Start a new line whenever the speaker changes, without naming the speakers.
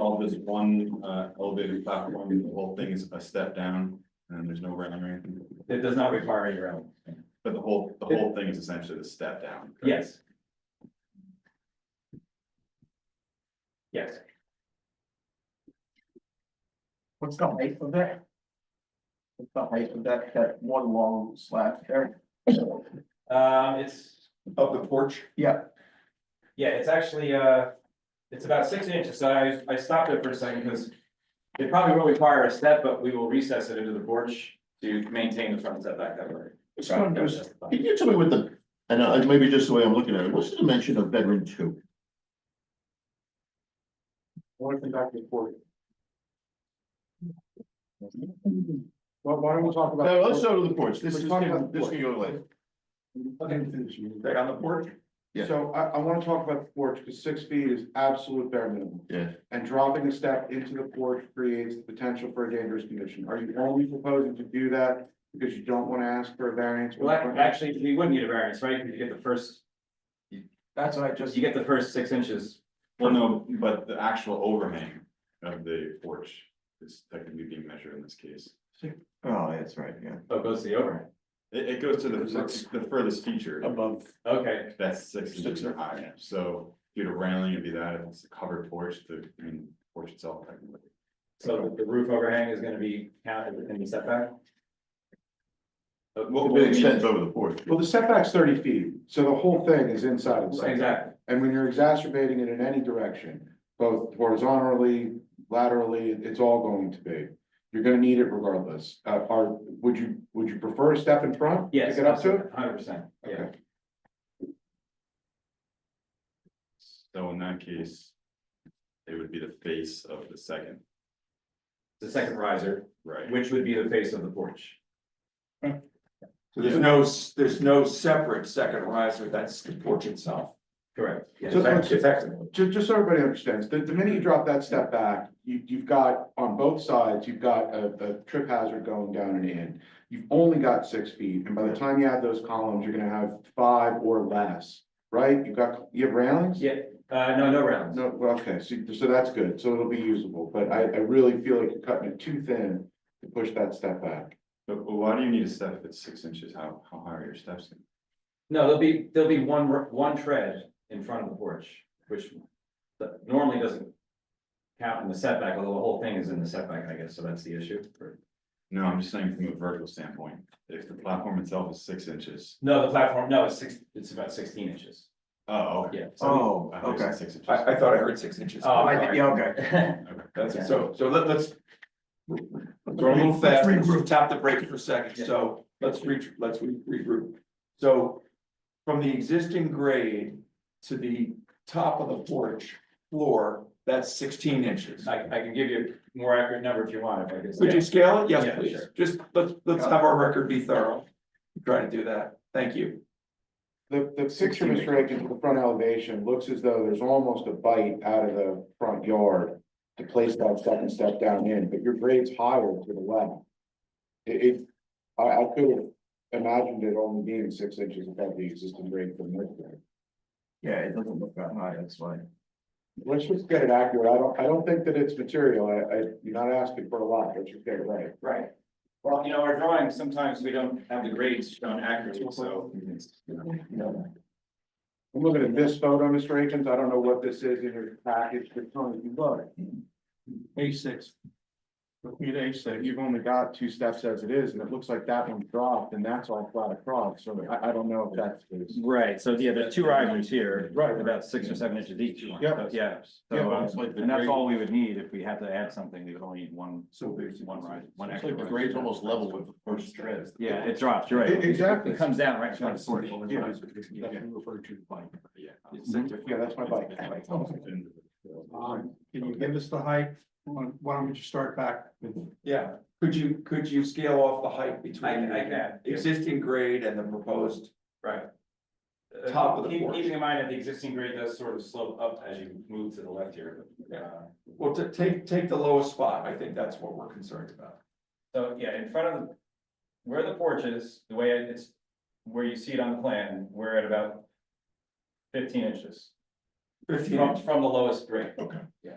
twelve is one uh elevated platform, the whole thing is a step down, and there's no railing or anything.
It does not require any railing.
But the whole, the whole thing is essentially the step down. correct?
Yes. Yes,
What's the height of that? What's the height of that, that one long slab there?
um, it's,
Of the porch,
Yeah,
yeah, it's actually, uh, it's about six inches, so I, I stopped it for a second, because it probably will require a step, but we will recess it into the porch to maintain the front setback that way.
It's not- there's- Can you tell me what the, and I, maybe just the way I'm looking at it, what's the dimension of bedroom two?
what if the back is forty? Well, why don't we talk about?
No, let's go to the porch, this
We're
is,
talking about the
this
porch.
can go later.
right on the porch,
Yeah.
So I, I wanna talk about the porch, because six feet is absolute bare minimum.
Yeah.
And dropping a step into the porch creates the potential for a dangerous condition. Are you only proposing to do that because you don't wanna ask for a variance?
Well, ac- actually, we wouldn't need a variance, right, because you get the first,
That's what I just.
you get the first six inches.
well, no, but the actual overhang of the porch is technically being measured in this case.
Oh, that's right, yeah.
Oh, it goes to the overhang,
It it goes to the fir- the furthest feature,
Above.
okay,
that's six inches or higher, so if you had a railing, it'd be that, if it's a covered porch, the, I mean, porch itself technically.
so the roof overhang is gonna be counted within the setback? Uh, what-
It
what we mean-
extends over the porch.
Well, the setback's thirty feet, so the whole thing is inside of the setback.
Exactly,
And when you're exacerbating it in any direction, both horizontally, laterally, it's all going to be. You're gonna need it regardless. Uh, are, would you, would you prefer a step in front? to
yes.
Get up to it?
Hundred percent, yeah.
Okay.
So in that case, it would be the face of the second,
The second riser,
right?
which would be the face of the porch.
So there's no, s- there's no separate second riser, that's the porch itself.
Correct. Yes.
So-
Effect- Effectively.
Just, just so everybody understands, the, the minute you drop that step back, you, you've got, on both sides, you've got a, a trip hazard going down and in. You've only got six feet, and by the time you add those columns, you're gonna have five or less, right? You've got, you have railings?
Yeah, uh, no, no rounds.
No, well, okay, so, so that's good, so it'll be usable, but I, I really feel like you're cutting it too thin to push that step back.
But but why do you need a step if it's six inches? How, how high are your steps?
No, there'll be, there'll be one, r- one tread in front of the porch, which that normally doesn't count in the setback, although the whole thing is in the setback, I guess, so that's the issue. or-
No, I'm just saying from a vertical standpoint, if the platform itself is six inches.
No, the platform, no, it's six, it's about sixteen inches.
Oh, okay.
Yeah.
Oh,
I thought you said Six inches.
I, I thought I heard six inches.
Oh, I did,
okay.
Okay.
That's it. So, so let, us Go a little fast, let's just tap the brake for a second, so let's re, let's re- regroup. So from the existing grade to the top of the porch floor, that's sixteen inches.
I, I can give you a more accurate number if you want, if I could.
Could you scale it?
Yeah,
Yes, please.
sure.
Just, let's, let's have our record be thorough. Try to do that. Thank you.
The, the picture, Mr. Aiken, to the front elevation looks as though there's almost a bite out of the front yard to place that second step down in, but your grade's higher to the left. It, it, I, I could have imagined it only being six inches above the existing grade from this grade.
Yeah, it doesn't look that high, that's why.
Let's just get it accurate, I don't, I don't think that it's material, I, I, you're not asking for a lot, let's just get it right.
Right. Well, you know, our drawings, sometimes we don't have the grades shown accurately, so.
I'm looking at this photo, Mr. Akins, I don't know what this is in your package, but tell me if you look. A six. Looking at A six, you've only got two steps as it is, and it looks like that one's dropped, and that's all flat across, so I, I don't know if that's. the-
Right, so yeah, there's two risers here,
Right.
about six or seven inches each.
Yep.
So, Yeah.
Yeah,
So,
well,
um,
it's like the
and that's
grade-
all we would need if we had to add something, we would only need one,
So big.
one rise, one
It's
extra.
like the
riser.
grade's almost level with the first tread.
Yeah, it drops, you're right.
E- exactly.
It comes down right in front of the porch.
Yeah.
Yeah.
Yeah, that's my bike.
Um, can you give us the height? Why why don't we just start back with,
Yeah, could you, could you scale off the height between?
I can, I
the
can, yeah,
Existing grade and the proposed,
right. Uh,
Top of the
keep-
porch.
Keeping in mind that the existing grade does sort of slope up as you move to the left here. Uh,
well, ta- take, take the lowest spot, I think that's what we're concerned about.
So, yeah, in front of, the where the porch is, the way it's, where you see it on the plan, we're at about fifteen inches
Fifteen
from,
inch,
from the lowest grade.
Okay.
Yeah.